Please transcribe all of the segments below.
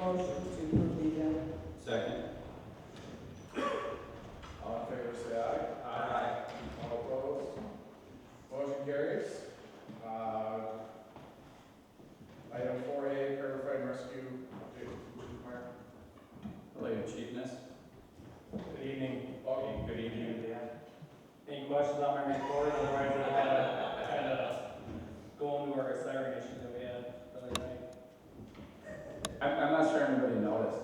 motion to approve the agenda. Second. All in favor, say aye. Aye. All opposed? Motion carries. Uh, Item four A, Riverfront Rescue, Jason Mark. Hello, Your Chiefness. Good evening. Okay, Good evening. Any questions on my report, otherwise I gotta kind of go into our siren issue that we had the other night. I'm, I'm not sure anybody noticed.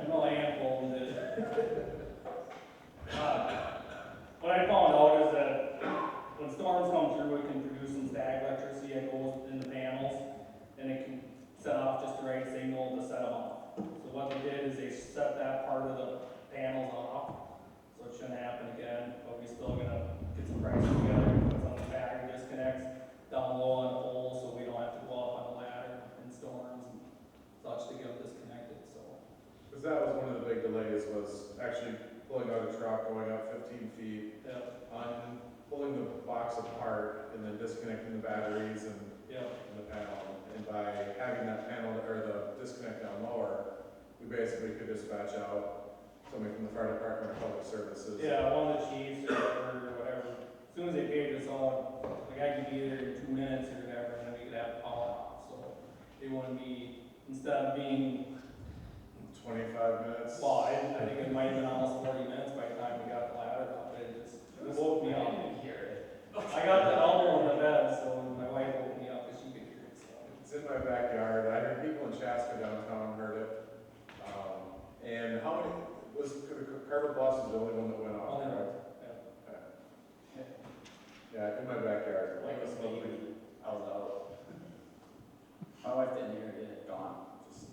I know I am holding it. Uh, What I found out is that when storms come through, it can produce some static electricity that goes in the panels, and it can set off just the right signal to set them off. So what they did is they set that part of the panels off, so it shouldn't happen again, but we still gonna get some prices together, put some battery disconnects down low on the pole, so we don't have to go up on the ladder in storms and such to get them disconnected, so. Because that was one of the big delays, was actually pulling out a truck, going up fifteen feet, Yep, un pulling the box apart, and then disconnecting the batteries and yep, and the panel. And by having that panel, or the disconnect down lower, we basically could dispatch out somebody from the fire department or public services. yeah, one of the chiefs or whatever, or whatever, as soon as they paid us on, like I could be there in two minutes or whatever, and then we could have power off, so. They wanna be, instead of being, Twenty-five minutes. well, I, I think it might have been almost forty minutes by the time we got the ladder up, it just it Oh, woke me up. I got the elbow in the bed, so my wife woke me up, cause she could hear it, so. It's in my backyard. I heard people in Chaska downtown heard it. Um, and how many, was, Carver Boss is the only one that went off? Only one, Okay. Yeah, in my backyard. Like this baby, I was out. My wife didn't hear it, it had gone. Just-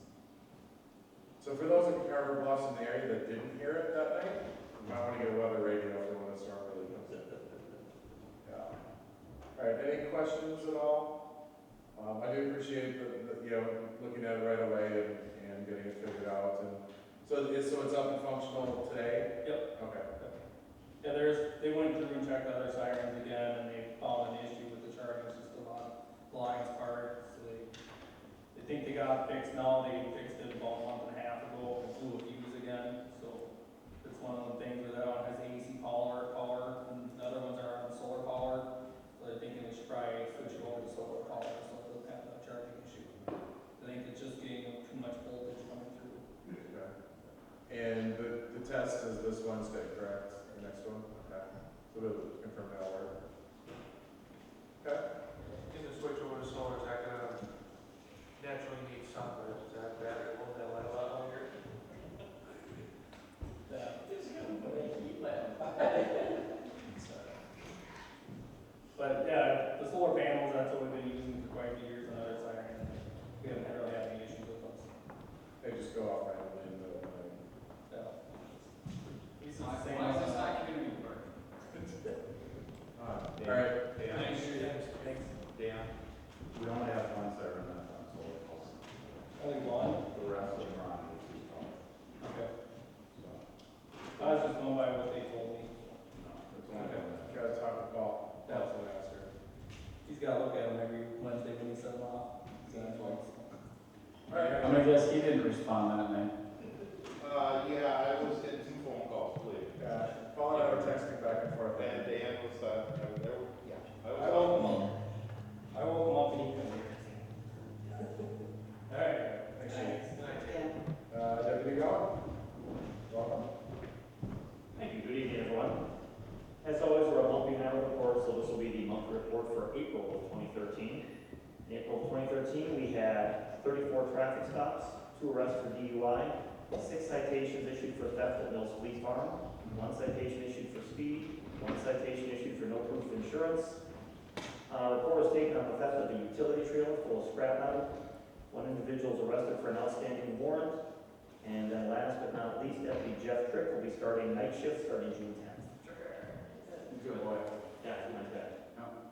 So for those in Carver Bluffs in the area that didn't hear it that night, you might want to get a weather radio for when the storm really comes in. Yeah. All right, any questions at all? Um, I do appreciate the, the, you know, looking at it right away and, and getting it figured out and, so it's, so it's up and functional today? Yep. Okay. Yeah, there's, they went through and checked the other sirens again, and they found an issue with the charging system on Lions Park, so they, they think they got it fixed now, they fixed it about a month and a half ago, and blew a fuse again, so it's one of the things where that one has AC power, power, and the other ones are on solar power, so they're thinking they should probably switch it over to solar power, so it doesn't have that charging issue. I think it's just getting too much voltage coming through. Okay. And the, the test is this Wednesday, correct? The next one? Okay. So we'll confirm that order. Okay. In the switch over to solar, is that gonna naturally need sun, or is that battery, will that light a lot longer? Yeah. But yeah, the solar panels, that's what we've been using for quite a few years on our side, and we haven't really had any issues with those. They just go off randomly in the middle of the night. So. These are the same. Why is this not community work? All right, Thanks, thanks. Uh, Dan? We only have one server in that one, so we'll- Only one? the rest of them are on the two phones, Okay. so. I was just going by what they told me. no, it's only one. gotta talk to Paul, Yeah. Paul's an answer. He's gotta look at them every Wednesday when he sets them off. He's gonna twice. All right, I mean, guess he didn't respond that night. Uh, yeah, I was in two phone calls later. yeah, Paul and I were texting back and forth. And Dan was, uh, there, yeah. I I was, woke him up. I woke him up and he couldn't hear. All right. Thanks, Shane. Dan? Uh, Deputy Goff? Welcome. Thank you. Good evening, everyone. As always, we're a monthly annual report, so this will be the monthly report for April of 2013. In April of 2013, we had 34 traffic stops, two arrests for DUI, six citations issued for theft at Mills Police Farm, one citation issued for speed, one citation issued for no proof of insurance. Uh, Report was taken on the theft of a utility trailer full of scrap metal. One individual was arrested for an outstanding warrant. And then last but not least, Deputy Jeff Trick will be starting night shift starting June tenth. Good boy. Yeah, he went back.